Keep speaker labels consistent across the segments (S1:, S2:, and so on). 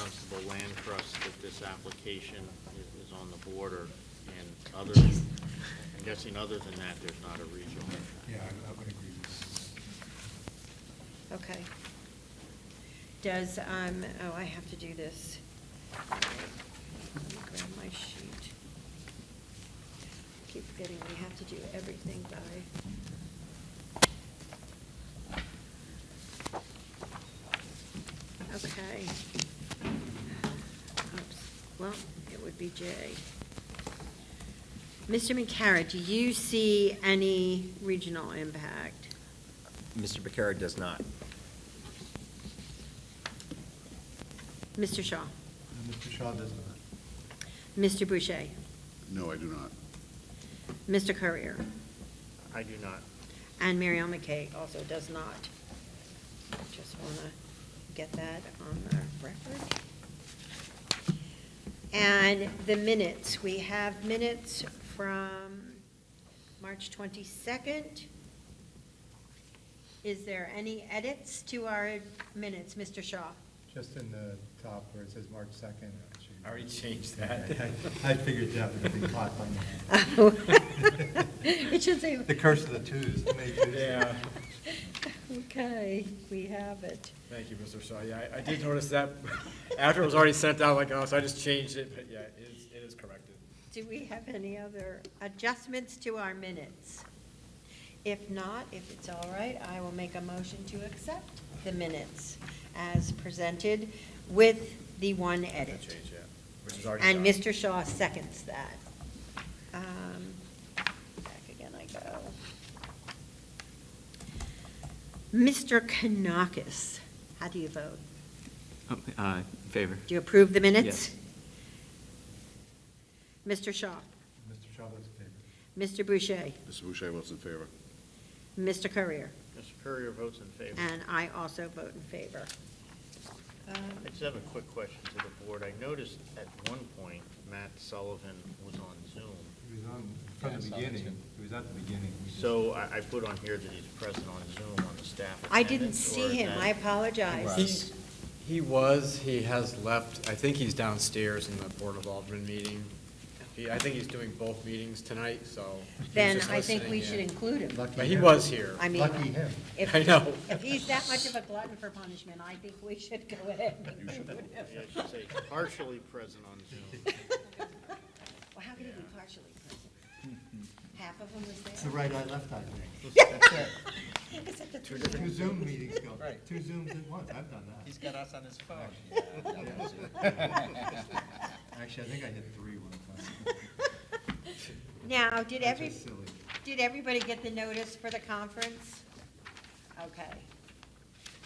S1: Dunstable Land Trust that this application is, is on the border, and other, I'm guessing other than that, there's not a regional impact.
S2: Yeah, I I would agree with
S3: Okay. Does, um, oh, I have to do this. Let me grab my sheet. Keep forgetting we have to do everything by. Okay. Oops. Well, it would be J. Mr. McCarra, do you see any regional impact?
S4: Mr. Becerra does not.
S3: Mr. Shaw?
S2: that. Mr. Uh, Shaw does not.
S3: Mr. Boucher?
S5: No, I do not.
S3: Mr. Courier?
S1: I do not.
S3: And Mary Ellen McKay also does not. Just want to get that on the record. And the minutes, we have minutes from March 22nd. Is there any edits to our minutes, Mr. Shaw?
S2: Just in the top where it says March 2nd. I should-
S6: I already changed that.
S2: I- I figured that would be caught by now.
S3: Oh. It should say-
S2: The curse of the twos. the May twos.
S6: Yeah.
S3: Okay, we have it.
S6: Thank you, Mr. Shaw. Yeah, I- I did notice that after it was already sent out, like, oh, so I just changed it, but yeah, it is, it is corrected.
S3: Do we have any other adjustments to our minutes? If not, if it's all right, I will make a motion to accept the minutes as presented with the one
S6: That
S3: edit.
S6: change, yeah, which is already
S3: And
S6: done.
S3: Mr. Shaw seconds that. Um, Back again I go. Mr. Kanakis, how do you vote?
S7: Oh, uh, In favor.
S3: Do you approve the minutes?
S7: Yes.
S3: Mr. Shaw,
S2: Mr. Shaw votes in favor.
S3: Mr. Boucher,
S5: Mr. Boucher votes in favor.
S3: Mr. Courier.
S1: Mr. Courier votes in favor.
S3: And I also vote in favor. Um,
S1: I just have a quick question to the board. I noticed at one point, Matt Sullivan was on Zoom.
S2: He was on, from the beginning, he was at the beginning. We just-
S1: So I, I put on here that he's present on Zoom on the staff
S3: I didn't
S1: attendance,
S3: see
S1: or
S3: him,
S1: that-
S3: I apologize.
S6: He- He was, he has left, I think he's downstairs in the Board of Alderman meeting. He, I think he's doing both meetings tonight, so. he was
S3: Then
S6: just
S3: I think
S6: listening
S3: we should
S6: in.
S3: include him.
S2: Lucky
S6: But he
S2: him.
S6: was here.
S3: I mean-
S2: Lucky him.
S3: If-
S6: I know.
S3: If he's that much of a glutton for punishment, I think we should go ahead and include him.
S1: Maybe I should say partially present on Zoom.
S3: Well, how could he be partially present? Half of him was there.
S2: It's the right eye, left eye thing.
S3: Except the three of
S2: Two
S3: them.
S2: Zoom meetings go,
S4: Right.
S2: two Zooms at once, I've done that.
S4: He's got us on his phone.
S2: Actually, I think I hit three one time.
S3: Now, did
S2: That's
S3: every,
S2: just silly.
S3: did everybody get the notice for the conference? Okay.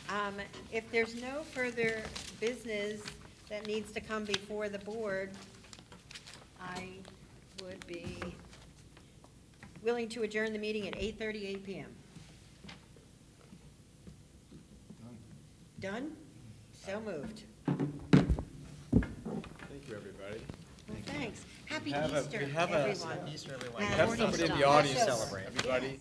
S3: Um, If there's no further business that needs to come before the board, I would be willing to adjourn the meeting at 8:38 PM.
S2: Done.
S3: Done? So moved.
S6: Thank you, everybody.
S3: Well, thanks. Happy
S6: We have a-
S3: Easter,
S6: we have a-
S3: everyone.
S4: Easter, everyone.
S6: We have
S3: Morning
S6: somebody in
S3: star.
S6: the audience,
S3: Passover.
S6: everybody.